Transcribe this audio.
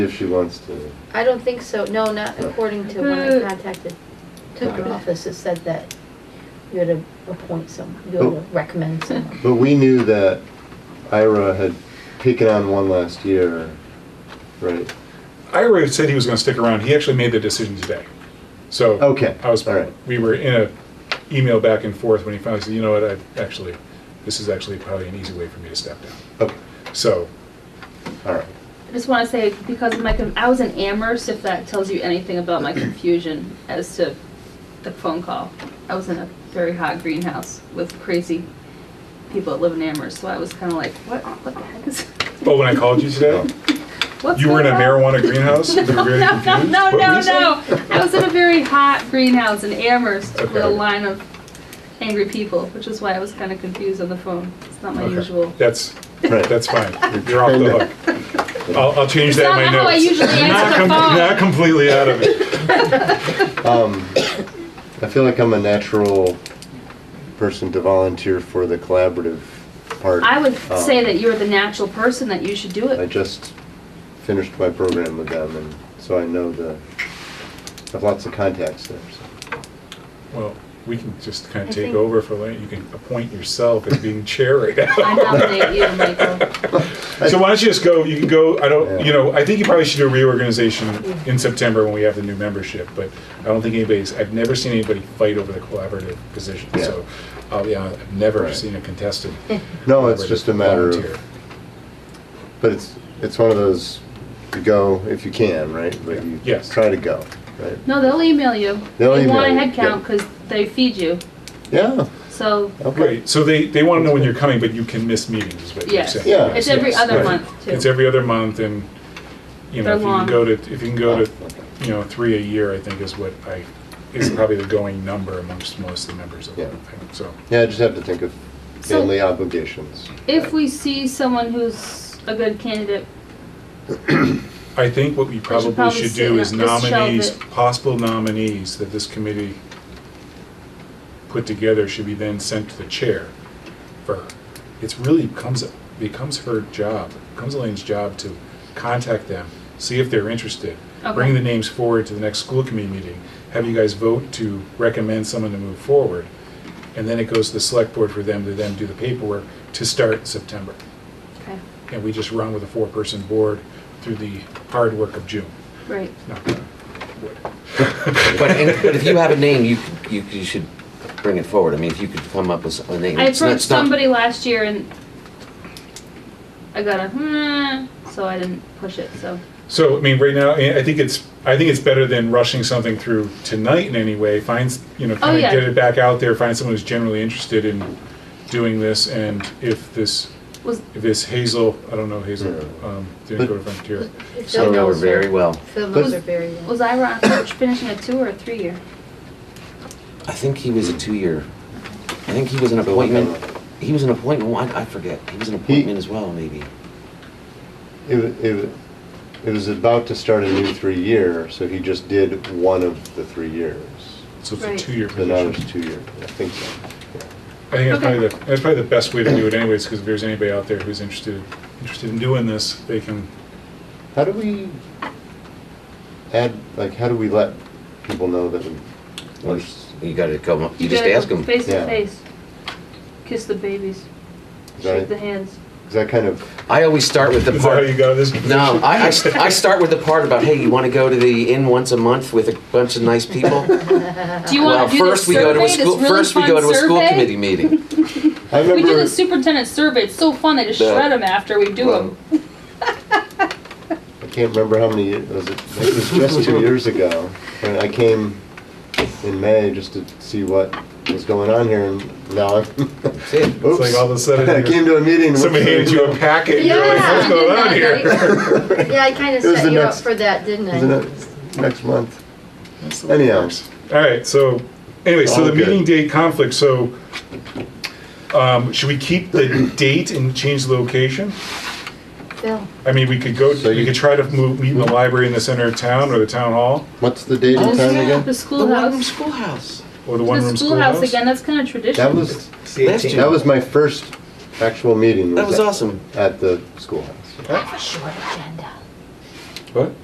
If she wants to. I don't think so, no, not according to when I contacted took Okay. your office, it said that you had to appoint someone, you had to recommend someone. But we knew that Ira had taken on one last year, right? Ira said he was going to stick around. He actually made the decision today. So Okay, I was all right. we were in a email back and forth when he finally said, "You know what? I actually this is actually probably an easy way for me to step down." Okay, So Oh, all right. I just want to say, because of my, con- I was in Amherst, if that tells you anything about my confusion as to the phone call. I was in a very hot greenhouse with crazy people that live in Amherst, so I was kind of like, what, what the heck is? But when I called you Oh. today, what's Oh, you were in a going on?" marijuana greenhouse. You were No, very no, no, confused. no, What were no, you saying? no. I was in a very hot greenhouse in Amherst with Okay. a line of angry people, which is why I was kind of confused on the phone. It's not my Okay. usual. That's Right. that's fine. You're off the hook. I'll, I'll change It's that not in my how I notes. usually not, answer the phone. not completely out of it. Um, I feel like I'm a natural person to volunteer for the collaborative part. I would Um, say that you're the natural person that you should do I it. just finished my program with them, and so I know the, I have lots of contacts there, so. Well, we can just kind I of take think- over for Lane. You can appoint yourself as being chair right now. I nominate you, Michael. So why don't you just go, you can go, I don't, you Yeah. know, I think you probably should do a reorganization in September when we have the new membership, but I don't think anybody's, I've never seen anybody fight over the collaborative position, Yeah. so, I'll be honest, I've never Right. seen a contested. No, it's collaborative just a matter of- volunteer. But it's, it's one of those, you go if you can, right? But you Yes. try to go, right? No, they'll email you. They'll They want a email you, head count yeah. because they feed you. Yeah, So, okay. Right, so they, they wanna know when you're coming, but you can miss meetings, is what you're yes. saying. Yeah. It's every Yes, other right. month, It's too. every other month and, you know, They're if you can long. go to, if you can go to, Oh, okay. you know, three a year, I think is what I, is probably the going number amongst most of the members of Yeah. the thing, so. Yeah, I just have to think of So- family obligations. If we see someone who's a good candidate, I think what we probably probably should sit do and is just shelve nominees, it. possible nominees that this committee put together should be then sent to the chair for, her. it's really becomes, becomes her job, becomes Elaine's job to contact them, see if they're interested, bring Okay. the names forward to the next school committee meeting, have you guys vote to recommend someone to move forward, and then it goes to the select board for them to then do the paperwork to start in September okay, and we just run with a four-person board through the hard work of June. right. Knock on wood. But, and, but if you have a name, you, you, you should bring it forward. I mean, if you could come up with a name. I it's not- approached it's not- somebody last year and I got a hmm, so I didn't push it. So So, I mean, right now, I I think it's, I think it's better than rushing something through tonight in any way. Find, s- you know, kind of Oh, yeah. get it back out there, find someone who's generally interested in doing this, and if this, was if this Hazel, I don't know Hazel, Yeah. um, didn't go to Frontier. So Phil know her knows very well. Phil knows her very well. was Ira on coach finishing a two or a three year? I think he was a two-year, I think he was an appointment, he was an appointment, I, I forget. He was an appointment as well, maybe. It, wa- it, wa- it was about to start a new three-year, so he just did one of the three years. So it's a Right. two-year So now position. it's two-year, I think so. I think that's Okay. probably the, that's probably the best way to do it anyways, because if there's anybody out there who's interested, interested in doing this, they can, How do we add, like, how do we let people know that we, Well, You gotta come up, you just gotta ask go him. Face to Yeah. face. Kiss the babies. Right. Shake the hands. is that kind of, I always start with the is that how part. you got this? No, position? I, I, st- I start with the part about, hey, you wanna go to the inn once a month with a bunch of nice people? Do you Well, want to do this first we go survey? to a This school, really first we go fun to a school committee survey? meeting. I We do remember, the superintendent survey. It's so fun. They just The- shred them after we do Well, them. I can't remember how many, years- was it, it was just two years ago. And I came in May just to see what was going on here, and now I'm, That's it. It's like all of a sudden I you're- came to a meeting. and Somebody what's- handed you a packet, and you're like, Yeah. what's going on here? Yeah, I kinda It was the set you up next- for that, didn't Isn't I? it next month? That's the way it Anyhow, works. All right, so, anyway, so All the good. meeting date conflict, so, um, should we keep the date and change the location? Phil, I mean, we could go, So we you- could try to move, meet in the library in the center of town, or the town hall, what's the date Oh, and time yeah. again? The one-room schoolhouse. schoolhouse. or the The one-room schoolhouse schoolhouse? again. That's kind of tradition. That was, Last year. that was my first actual meeting. That was at- awesome. At the schoolhouse. short agenda. What?